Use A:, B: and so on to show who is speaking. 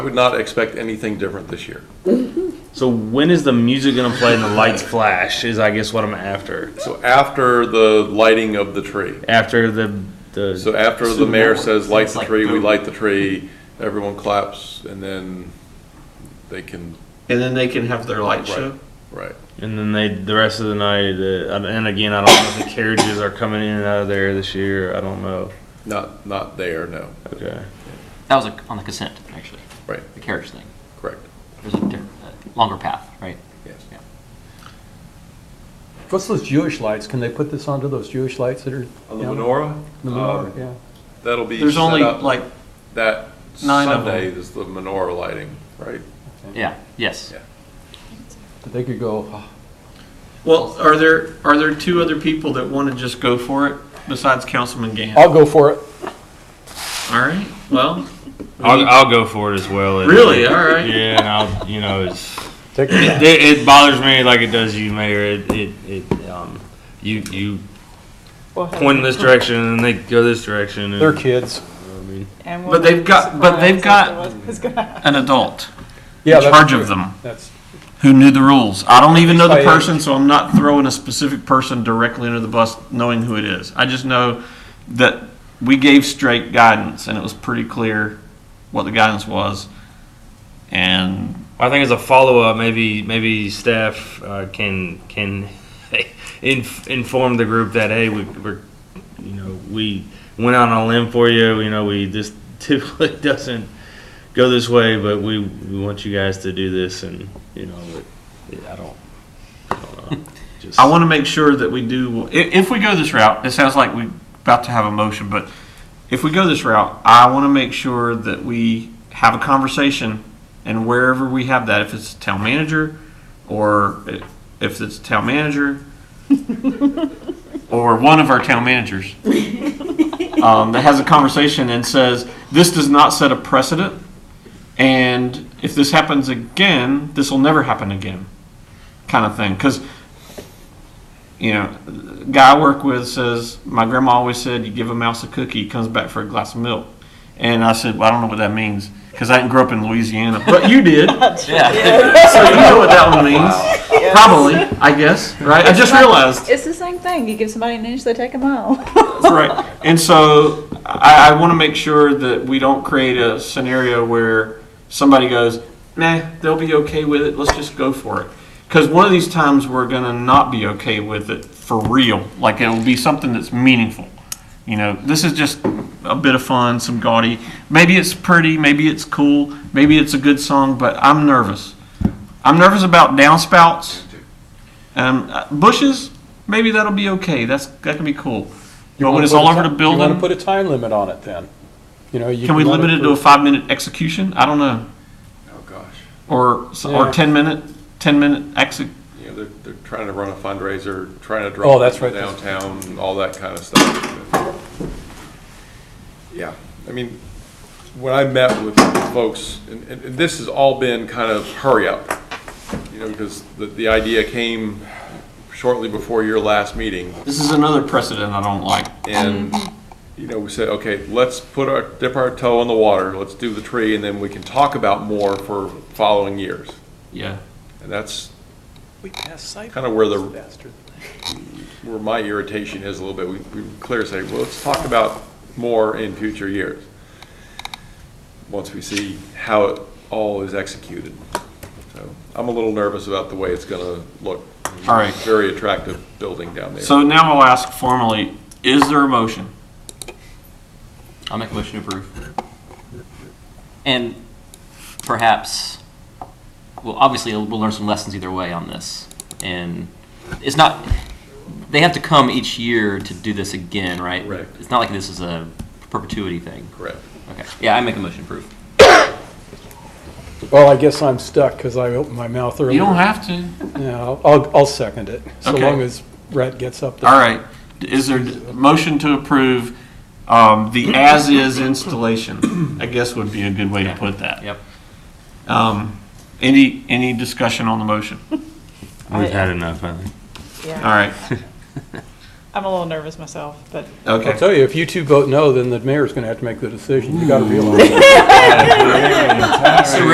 A: I would not expect anything different this year.
B: So when is the music gonna play and the lights flash? Is I guess what I'm after.
A: So after the lighting of the tree,
B: After the the
A: so after the
B: Super
A: mayor
B: Bowl.
A: says, light the
C: like
A: tree, we
C: boom.
A: light the tree, everyone claps, and then they can,
C: And then they can have their light
A: Right.
C: show.
A: right.
B: and then they the rest of the night. The, and again, I don't know if the carriages are coming in and out of there this year. I don't know.
A: Not, not there, no,
B: Okay.
D: That was a- on the consent, actually,
A: right,
D: the carriage thing.
A: correct,
D: There's a different, a longer path, right?
A: yes.
D: Yeah.
E: What's those Jewish lights? Can they put this onto those Jewish lights that are?
A: On the
E: down-
A: menorah?
E: The
A: um,
E: menorah, yeah.
A: That'll be
C: There's
A: set
C: only
A: up-
C: like
A: That
C: nine of
A: Sunday is the menorah lighting, right?
D: Yeah, yes.
A: Yeah.
E: But They could go, "Ah,
C: well, are there are there two other people that want to just go for it besides Councilman Gann?
E: I'll go for it.
C: All right. Well,
B: I'll, I'll go for it as well.
C: Really? All right.
B: Yeah, and I'll you know it's
E: Take your time.
B: it, it bothers me like it does you, Mayor. It it, it um you you point in this direction and they go this direction. And,
E: They're kids.
B: I mean,
F: And
C: But they've got- but they've got- an adult
E: Yeah,
C: in
E: that's
C: charge
E: true.
C: of them
E: That's,
C: who knew the rules. I don't even know the
E: By age.
C: person, so I'm not throwing a specific person directly under the bus, knowing who it is. I just know that we gave straight guidance, and it was pretty clear what the guidance was. And
B: I think as a follow up, maybe maybe staff uh, can can inf- inform the group that hey, we, we're you know we went out on a limb for you. You know, we this typically doesn't go this way, but we, we want you guys to do this, and you know, it, I don't. I don't know. Just,
C: I want to make sure that we do, i- if we go this route, it sounds like we're about to have a motion, but if we go this route, I want to make sure that we have a conversation and wherever we have that, if it's town manager or i- if it's town manager or one of our town managers um, that has a conversation and says, this does not set a precedent. And if this happens again, this will never happen again, kind of thing. Because you know, the guy I work with says, my grandma always said, you give a mouse a cookie, he comes back for a glass of milk. And I said, well, I don't know what that means because I didn't grow up in Louisiana, but you did, so
D: Yeah.
C: you know what that one means. Probably, I guess, right? I just realized.
F: It's the same thing. You give somebody an inch, they take a mile.
C: Right. And so I, I want to make sure that we don't create a scenario where somebody goes, nah, they'll be okay with it. Let's just go for it. Because one of these times we're going to not be okay with it for real. Like it will be something that's meaningful. You know, this is just a bit of fun, some gaudy. Maybe it's pretty, maybe it's cool, maybe it's a good song, but I'm nervous. I'm nervous about downspouts. Um, uh, bushes, maybe that'll be okay. That's that can be cool.
E: You
C: But when
E: wanna
C: it's
E: put
C: all
E: a
C: over
E: ti-
C: the
E: You want
C: building-
E: to put a time limit on it then? You know, you.
C: Can we
E: run
C: limit it to a five minute execution? I don't know.
A: Oh, gosh.
C: Or, s- or
E: Yeah.
C: 10 minute, 10 minute exit.
A: You know, they're, they're trying to run a fundraiser, trying to
E: Oh,
A: draw
E: that's
A: people
E: right.
A: downtown, all that kind of stuff. Yeah, I mean, when I met with folks, and, and and this has all been kind of hurry up, you know, because the, the idea came shortly before your last meeting.
C: This is another precedent I don't like.
A: And, you know, we said, okay, let's put our, dip our toe in the water, let's do the tree, and then we can talk about more for following years.
C: Yeah.
A: And that's
E: We pass site.
A: kind of where the
E: Bastard.
A: where my irritation is a little bit, we, we clear say, well, let's talk about more in future years. Once we see how it all is executed. So I'm a little nervous about the way it's gonna look.
C: All right.
A: Very attractive building down there.
C: So now I'll ask formally, is there a motion?
D: I'll make a motion to approve. And perhaps, well, obviously, we'll learn some lessons either way on this. And it's not, they have to come each year to do this again, right?
A: Correct.
D: It's not like this is a perpetuity thing.
A: Correct.
D: Okay, yeah, I make a motion to approve.
E: Well, I guess I'm stuck because I opened my mouth earlier.
C: You don't have to.
E: Yeah, I'll- I'll, I'll second it, so
C: Okay.
E: long as Brett gets up there.
C: All right. Is there a motion to approve um, the as is installation? I guess would be a good way to put that.
D: Yep.
C: Um, any, any discussion on the motion?
B: We've had enough. I think.
C: All right.
F: I'm a little nervous myself, but
E: I'll
C: Okay.
E: tell you, if you two vote no, then the mayor's gonna have to make the decision. You gotta be alone.